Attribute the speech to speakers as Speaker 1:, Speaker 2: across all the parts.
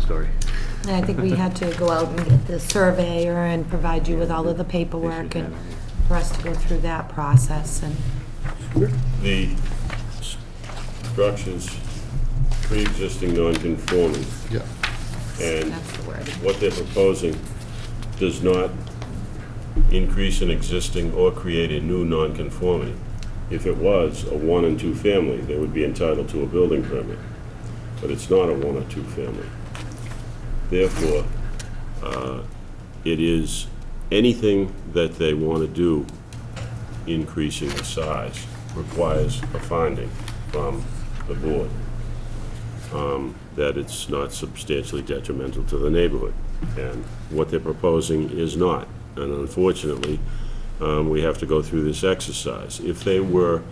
Speaker 1: story.
Speaker 2: And I think we had to go out and get the surveyor and provide you with all of the paperwork and for us to go through that process and,
Speaker 3: The s- structures pre-existing non-conforming,
Speaker 4: Yeah,
Speaker 3: and
Speaker 2: that's the word.
Speaker 3: what they're proposing does not increase an existing or create a new nonconformity. If it was a one and two family, they would be entitled to a building permit, but it's not a one or two family. Therefore, uh, it is anything that they want to do increasing the size requires a finding from the board that it's not substantially detrimental to the neighborhood. And what they're proposing is not. And unfortunately, um, we have to go through this exercise. If they were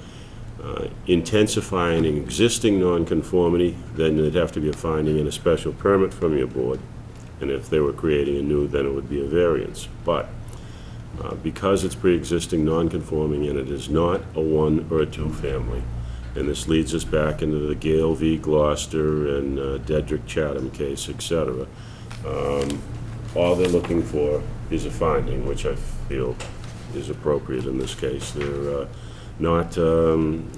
Speaker 3: uh, intensifying an existing nonconformity, then there'd have to be a finding and a special permit from your board. And if they were creating a new, then it would be a variance. But uh, because it's pre-existing non-conforming and it is not a one or a two-family. And this leads us back into the Gale v. Gloucester and uh, Dedrick Chatham case, et cetera. Um, All they're looking for is a finding, which I feel is appropriate in this case. They're uh, not um,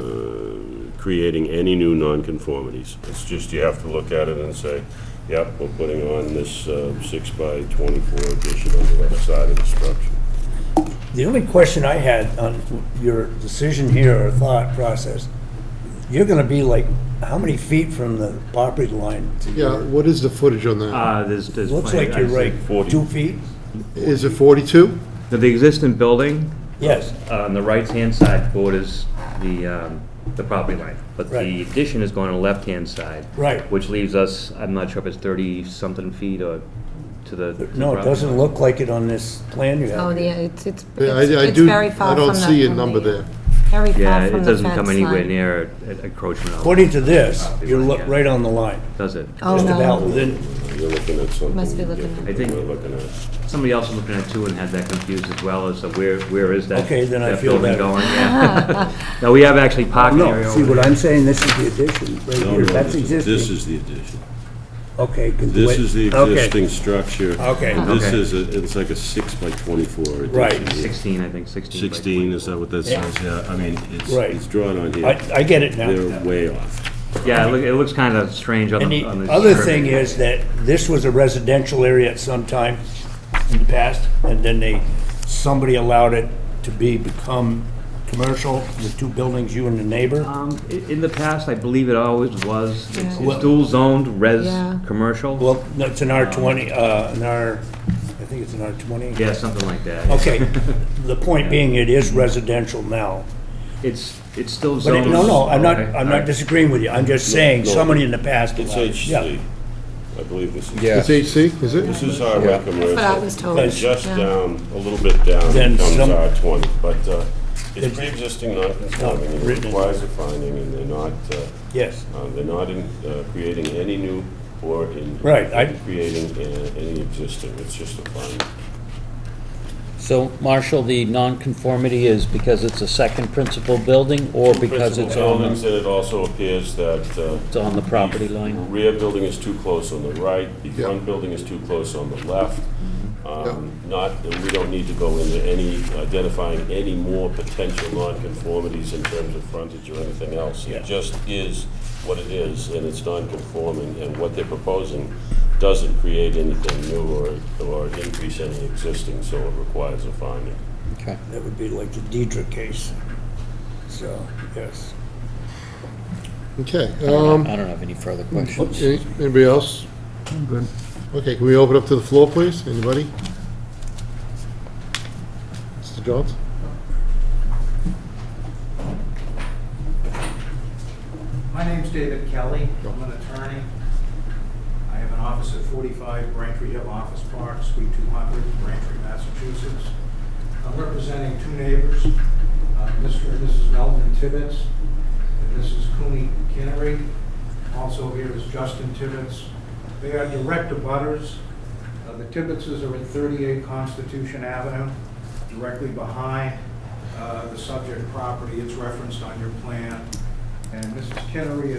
Speaker 3: uh, creating any new nonconformities. It's just you have to look at it and say, yep, we're putting on this uh, six by 24 addition on the left side of the structure.
Speaker 5: The only question I had on your decision here or thought process, you're gonna be like, how many feet from the property line to
Speaker 4: yeah,
Speaker 5: your?
Speaker 4: what is the footage on that?
Speaker 1: Uh, there's, there's.
Speaker 5: Looks
Speaker 1: plenty-
Speaker 5: like you're
Speaker 1: I see.
Speaker 5: right,
Speaker 3: 40.
Speaker 5: two feet?
Speaker 4: Is it 42?
Speaker 1: The the existing building uh,
Speaker 5: Yes,
Speaker 1: on the right-hand side borders the, um, the property line, but the
Speaker 5: Right.
Speaker 1: addition is going on the left-hand side.
Speaker 5: Right.
Speaker 1: Which leaves us, I'm not sure if it's thirty-something feet or to the. to the
Speaker 5: no, it
Speaker 1: property
Speaker 5: doesn't
Speaker 1: line.
Speaker 5: look like it on this plan you
Speaker 2: Oh,
Speaker 5: have.
Speaker 2: yeah, it's, it's
Speaker 4: Yeah, I- I
Speaker 2: it's
Speaker 4: do-
Speaker 2: very far
Speaker 4: I
Speaker 2: from the.
Speaker 4: don't see a
Speaker 2: from
Speaker 4: number
Speaker 2: the-
Speaker 4: there.
Speaker 2: Very
Speaker 1: Yeah,
Speaker 2: far
Speaker 1: it
Speaker 2: from the fence line.
Speaker 1: doesn't come anywhere near a- encroachment. on-
Speaker 5: According to this,
Speaker 1: Property
Speaker 5: you're
Speaker 1: line,
Speaker 5: lo-
Speaker 1: yeah.
Speaker 5: right on the line,
Speaker 1: Does it?
Speaker 2: Oh,
Speaker 5: just
Speaker 2: no.
Speaker 5: about within,
Speaker 3: You're looking at something.
Speaker 2: Must be looking at-
Speaker 3: different
Speaker 1: I think-
Speaker 3: than We're looking at.
Speaker 1: Somebody else was looking at it too and had that confused as well as to where, where is that?
Speaker 5: Okay, then I
Speaker 1: that
Speaker 5: feel
Speaker 1: building
Speaker 5: better.
Speaker 1: going? Yeah. No, we have actually parking area
Speaker 6: No, see
Speaker 1: over
Speaker 6: what
Speaker 1: there.
Speaker 6: I'm saying, this is the addition, right here, that's
Speaker 3: This
Speaker 6: existing.
Speaker 3: is the addition.
Speaker 5: okay. 'cause the
Speaker 3: This
Speaker 5: way-
Speaker 3: is the
Speaker 5: okay,
Speaker 3: existing structure.
Speaker 5: Okay.
Speaker 3: And This
Speaker 1: Okay.
Speaker 3: is, a- it's like a six by 24 addition.
Speaker 5: Right.
Speaker 3: here.
Speaker 1: Sixteen, I think, sixteen. by
Speaker 3: 16, is that what that says? Yeah, I mean, it's,
Speaker 5: Right.
Speaker 3: it's drawn on here.
Speaker 5: I, I get it now.
Speaker 3: They're way off.
Speaker 1: Yeah, it look- it looks kind of strange on
Speaker 5: And
Speaker 1: the,
Speaker 5: the
Speaker 1: on the.
Speaker 5: other
Speaker 1: survey.
Speaker 5: thing is that this was a residential area at some time in the past, and then they, somebody allowed it to be, become commercial, the two buildings, you and the neighbor.
Speaker 1: Um, i- in the past, I believe it always was, It's-
Speaker 2: Yeah.
Speaker 1: it's dual zoned, res,
Speaker 2: Yeah.
Speaker 1: commercial.
Speaker 5: Well, no, it's an R twenty, uh, an R, I think it's an R twenty.
Speaker 1: Yeah, something like that.
Speaker 5: Okay, the point being, it is residential now.
Speaker 1: It's, it's still
Speaker 5: But, it-
Speaker 1: zoned.
Speaker 5: no, no, I'm not,
Speaker 1: Okay,
Speaker 5: I'm
Speaker 1: all right.
Speaker 5: not disagreeing with you, I'm just saying,
Speaker 3: no.
Speaker 5: somebody in the past
Speaker 3: It's
Speaker 5: allowed it.
Speaker 3: HC.
Speaker 5: Yeah,
Speaker 3: I believe this is.
Speaker 6: Yeah.
Speaker 4: It's HC, is
Speaker 3: This
Speaker 4: it?
Speaker 3: is highway commercial.
Speaker 2: But I was told.
Speaker 5: But
Speaker 3: Just
Speaker 2: yeah.
Speaker 3: down, a little bit down,
Speaker 5: Then
Speaker 3: comes
Speaker 5: some-
Speaker 3: R twenty, but uh, it's
Speaker 5: It's-
Speaker 3: pre-existing non-conforming, and it
Speaker 5: Written in.
Speaker 3: requires a finding, and they're not, uh,
Speaker 5: yes,
Speaker 3: uh, they're not in, uh, creating any new or in.
Speaker 5: Right, I-
Speaker 3: Creating uh, any existing, it's just a finding.
Speaker 7: So, Marshall, the nonconformity is because it's a second principal building or because
Speaker 3: Principal
Speaker 7: it's on,
Speaker 3: buildings, and it also appears that. uh,
Speaker 7: it's on the property
Speaker 3: The
Speaker 7: line?
Speaker 3: rear building is too close on the right, the
Speaker 4: Yeah.
Speaker 3: front building is too close on the left. Um, Not, we don't need to go into any, identifying any more potential nonconformities in terms of frontage or anything else.
Speaker 5: Yeah.
Speaker 3: It just is what it is, and it's nonconforming, and what they're proposing doesn't create anything new or, or increase any existing, so it requires a finding.
Speaker 7: Okay.
Speaker 5: that would be like the Deidre case, so, yes.
Speaker 4: Okay.
Speaker 7: I
Speaker 4: um,
Speaker 7: don't have any further questions.
Speaker 4: any- Anybody else? Okay, can we open up to the floor, please? Anybody? Mr. Jones?
Speaker 8: My name's David Kelly. I'm an attorney. I have an office at 45 Braintree Hill Office Park, Suite 200, Braintree, Massachusetts. I'm representing two neighbors, uh, Mr. and Mrs. Melvin Tibbetts and Mrs. Cooney Kinnery. Also here is Justin Tibbetts. They are direct abutters. Uh, The Tibbettses are at 38 Constitution Avenue, directly behind uh, the subject property. It's referenced on your plan. And Mrs. Kinnery